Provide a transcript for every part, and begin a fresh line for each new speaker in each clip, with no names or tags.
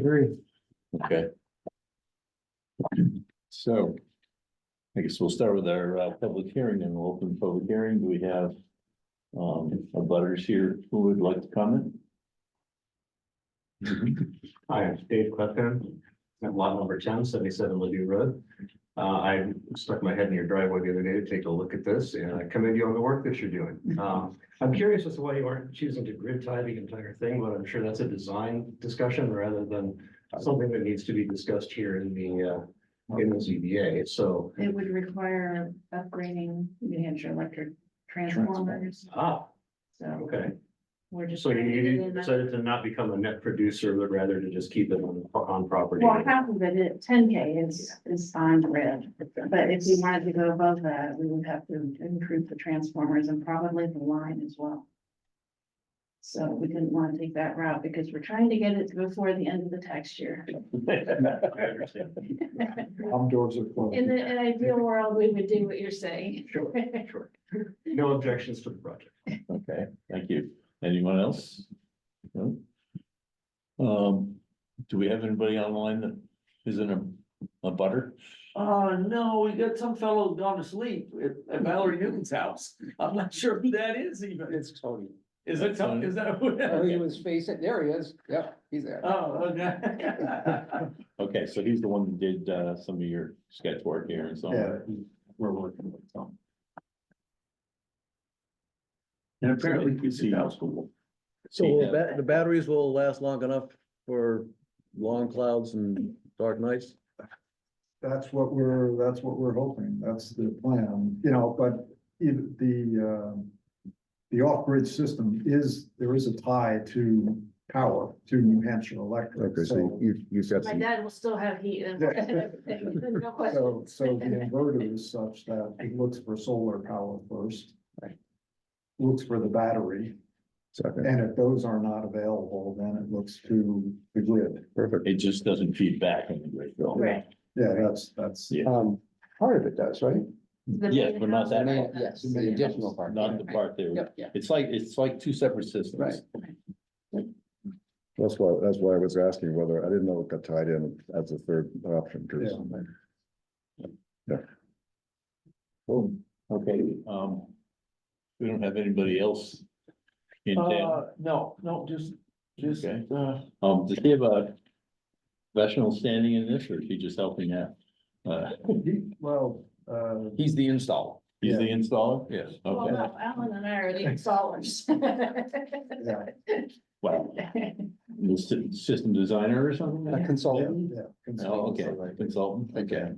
Agree.
Okay. So. I guess we'll start with our uh public hearing and we'll open the public hearing. Do we have? Um, our butters here who would like to comment?
Hi, Dave Clifton, at lot number ten, seventy-seven Ladue Road. Uh, I stuck my head in your driveway the other day to take a look at this and I commend you on the work that you're doing. Um, I'm curious as to why you aren't choosing to grid tie the entire thing, but I'm sure that's a design discussion rather than something that needs to be discussed here in the, uh, in the ZBA, so,
It would require upgrading New Hampshire electric transformers,
ah,
so
okay.
we're just.
So you-
trying to get it
you
in the-
decided to not become a net producer, but rather to just keep it on, on property.
Well, half of it, it, ten K is, is on grid, but if we wanted to go above that, we would have to improve the transformers and probably the line as well. So we didn't want to take that route because we're trying to get it before the end of the tax year.
I understand.
I'm doors are closed.
In the, in ideal world, we would do what you're saying.
Sure, sure. No objections to the project.
Okay, thank you. Anyone else? No? Um, do we have anybody online that isn't a, a butter?
Uh, no, we got some fellow gone to sleep at at Valerie Newton's house. I'm not sure who that is even.
It's Tony.
Is it some, is that who?
Oh, he was facing, there he is. Yep, he's there.
Oh, okay.
Okay, so he's the one that did uh some of your sketch work here and so. on.
Yeah, we're working with them.
And
apparently he's in house
So will
Yeah.
ba- the batteries will last long enough for long clouds and dark nights?
That's what we're, that's what we're hoping. That's the plan, you know, but if the, um. The off-grid system is, there is a tie to power, to New Hampshire Electric, so.
you, you've got
My dad will still have heat and. No
So,
questions.
so the inverter is such that it looks for solar power first. Looks for the battery,
second,
and if those are not available, then it looks to the grid.
perfect.
It just doesn't feed back in the great bill.
Right.
Yeah, that's, that's.
Yeah.
Um, part of it does, right?
The
Yes,
main
but not
house.
that
Man, Yes, the additional part.
Not the part there.
Yep, yeah.
It's like, it's like two separate systems.
That's why, that's why I was asking whether, I didn't know it got tied in as a third option, because
Boom. Okay, um. We don't have anybody else. In town,
Uh, no, no, just, just,
Okay.
uh,
um, does he have a? Professional standing in this, or is he just helping out? Uh,
He- Well, uh,
he's the installer.
he's the installer? Yes.
Well,
Okay,
no, Alan and I are the installers.
yeah,
well, the sy- system designer or something?
A consultant.
yeah.
Oh,
consultants
okay,
are like-
consultant, okay.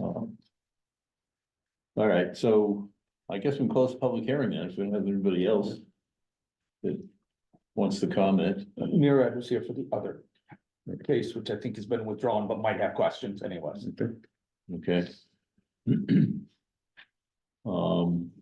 Um, All right, so I guess we can close the public hearing now, if we don't have anybody else. That wants to comment,
Mira was here for the other case, which I think has been withdrawn, but might have questions anyways.
okay? Um.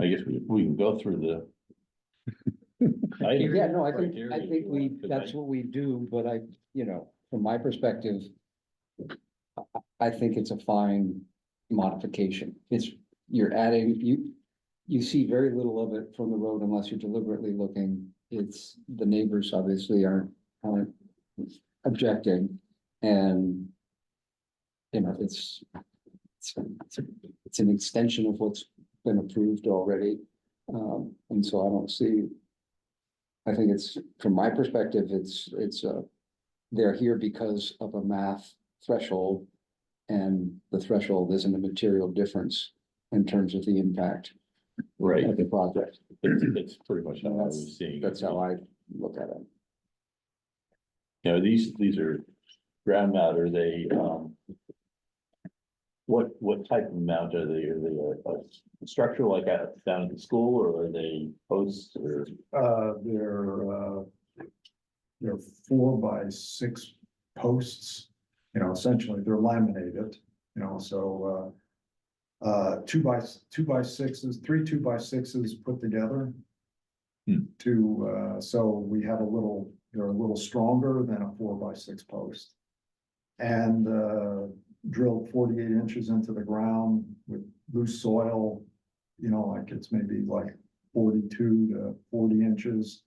I guess we, we can go through the. items
Yeah, no, I
right
think,
here
I
if
think
you
we,
want, 'cause I-
that's what we do, but I, you know, from my perspective. I- I, I think it's a fine modification. It's, you're adding, you, you see very little of it from the road unless you're deliberately looking. It's, the neighbors obviously aren't, aren't objecting and. You know, it's, it's, it's a- it's an extension of what's been approved already. Um, and so I don't see I think it's, from my perspective, it's, it's, uh, they're here because of a math threshold. And the threshold isn't a material difference in terms of the impact
Right,
of the project.
that's, that's pretty much how I
That's-
was seeing. it.
That's how I look at it.
You know, these, these are ground mount, are they, um. What, what type of mount are they? Are they a, a structure like out down at the school or are they posts or?
Uh, they're, uh, they're four by six posts, you know, essentially they're laminated, you know, so, uh, uh, two by, s- two by sixes, three two by sixes put together.
Hmm.
To, uh, so we have a little, they're a little stronger than a four by six post. And, uh, drilled forty-eight inches into the ground with loose soil, you know, like it's maybe like forty-two to forty inches.